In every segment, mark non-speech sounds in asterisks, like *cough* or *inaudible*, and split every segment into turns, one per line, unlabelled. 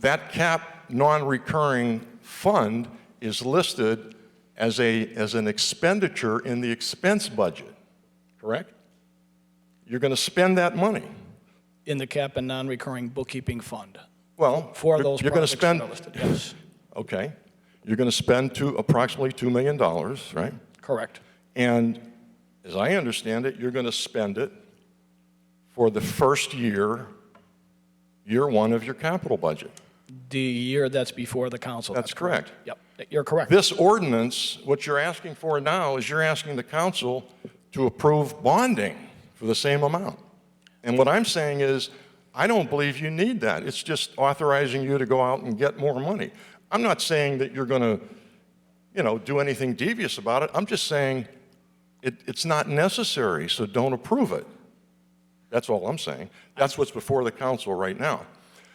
That cap non-recurring fund is listed as a, as an expenditure in the expense budget, correct? You're going to spend that money.
in the cap and non-recurring bookkeeping fund
Well,
for
you're-
those
you're going to
projects that
spend.
are listed. Yes,
Okay. You're going to spend two, approximately $2 million, right?
correct.
And as I understand it, you're going to spend it for the first year, year one of your capital budget.
The year that's before the council.
That's correct.
Yep, you're correct.
This ordinance, what you're asking for now is you're asking the council to approve bonding for the same amount. And what I'm saying is, I don't believe you need that. It's just authorizing you to go out and get more money. I'm not saying that you're going to, you know, do anything devious about it. I'm just saying it, it's not necessary, so don't approve it. That's all I'm saying. That's what's before the council right now.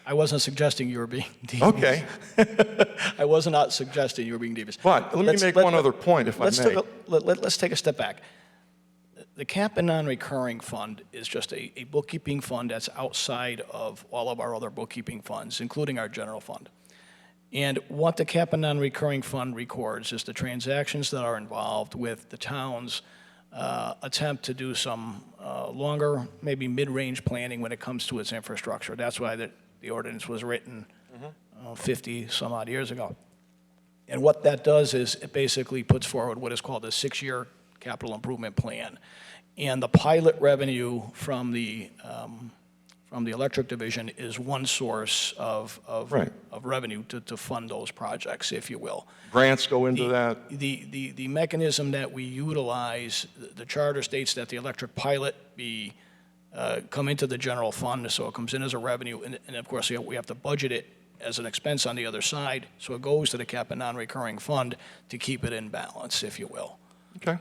I wasn't suggesting you were being *laughs* devious.
Okay,
I was not suggesting you were being devious.
but let me
Let's-
make
let-
one other point, if I may.
Let's take, a- let, let- let's take a step back. The cap and non-recurring fund is just a, a bookkeeping fund that's outside of all of our other bookkeeping funds, including our general fund. And what the cap and non-recurring fund records is the transactions that are involved with the town's uh, attempt to do some uh, longer, maybe mid-range planning when it comes to its infrastructure. That's why the, the ordinance was written
Mm-hmm.
uh, 50 some odd years ago. And what that does is it basically puts forward what is called a six-year capital improvement plan. And the pilot revenue from the, um, from the electric division is one source of, of,
Right.
of revenue to, to fund those projects, if you will.
Grants go into that.
The, the, the mechanism that we utilize, the- the charter states that the electric pilot be, uh, come into the general fund, so it comes in as a revenue, and, and of course, you know, we have to budget it as an expense on the other side, so it goes to the cap and non-recurring fund to keep it in balance, if you will.
Okay.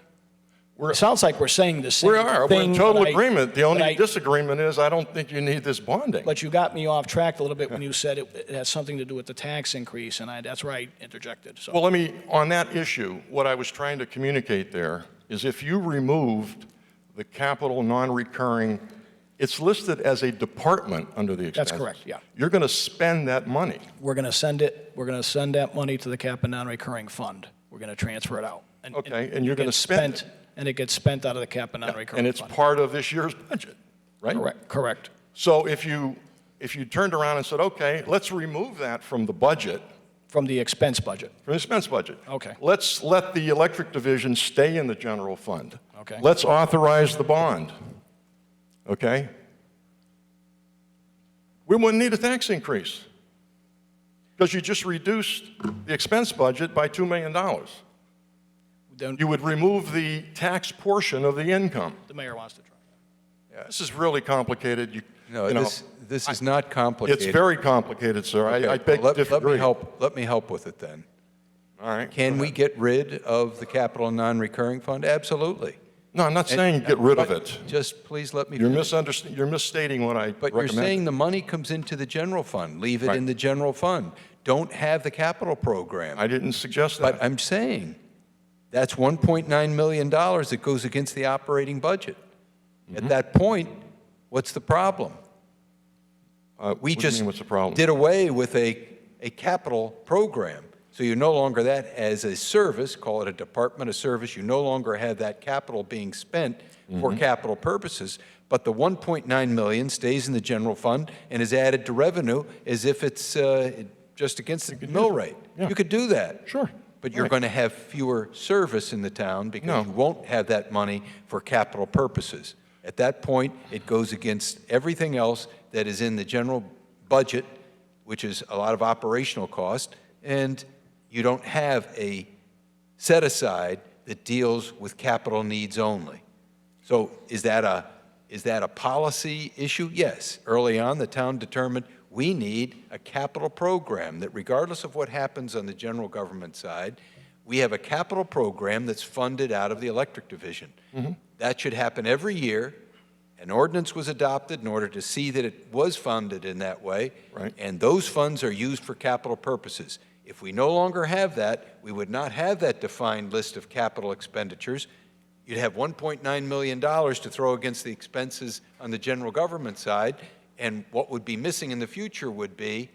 It sounds like we're saying the same
We
thing.
are. We're in total
but I-
agreement. The
but I-
only disagreement is I don't think you need this bonding.
But you got me off track a
*laughs*
little bit when you said it it has something to do with the tax increase, and I, that's where I interjected, so.
Well, let me, on that issue, what I was trying to communicate there is if you removed the capital non-recurring, it's listed as a department under the
That's
expenses.
correct, yeah.
You're going to spend that money.
we're going to send it, we're going to send that money to the cap and non-recurring fund. We're going to transfer it out. And-
Okay, and you're gonna
it gets
spend it.
spent- And it gets spent out of the cap and
And
non-recurring
it's
fund.
part of this year's budget, right?
Correct, correct.
So if you, if you turned around and said, okay, let's remove that from the budget,
From the expense budget.
From the expense budget.
Okay.
Let's let the electric division stay in the general fund.
Okay.
Let's authorize the bond, okay? We wouldn't need a tax increase, because you just reduced the expense budget by $2 million.
Then
You would remove the tax portion of the income.
the mayor wants to try.
This is really complicated, you,
No,
you know,
this, this is not complicated.
It's very complicated, sir.
Okay,
I- I
well,
beg to
let- Let
disagree.
me help, let me help with it then.
All right.
Can we get rid of the capital non-recurring fund? Absolutely.
No, I'm not saying get rid of
But
it.
Just please let me
You're
finish.
misunderstanding, you're misstating what I
But you're
recommended.
saying the money comes into the general fund. Leave it
Right.
in the general fund. Don't have the capital program.
I didn't suggest that.
But I'm saying, that's $1.9 million that goes against the operating budget.
Mm-hmm.
At that point, what's the problem? We
Uh, what do you
just
mean, what's the problem?
did away with a, a capital program. So you no longer that as a service, call it a department of service, you no longer have that capital being spent for
Mm-hmm.
capital purposes, but the 1.9 million stays in the general fund and is added to revenue as if it's uh, just against the mill rate.
Yeah.
You could do that.
Sure.
But you're
Right.
going to have fewer service in the town
No.
because you won't have that money for capital purposes. At that point, it goes against everything else that is in the general budget, which is a lot of operational cost, and you don't have a set aside that deals with capital needs only. So is that a, is that a policy issue? Yes. Early on, the town determined we need a capital program that regardless of what happens on the general government side, we have a capital program that's funded out of the electric division. That should happen every year. An ordinance was adopted in order to see that it was funded in that way.
Right.
And those funds are used for capital purposes. If we no longer have that, we would not have that defined list of capital expenditures. You'd have $1.9 million to throw against the expenses on the general government side, and what would be missing in the future would be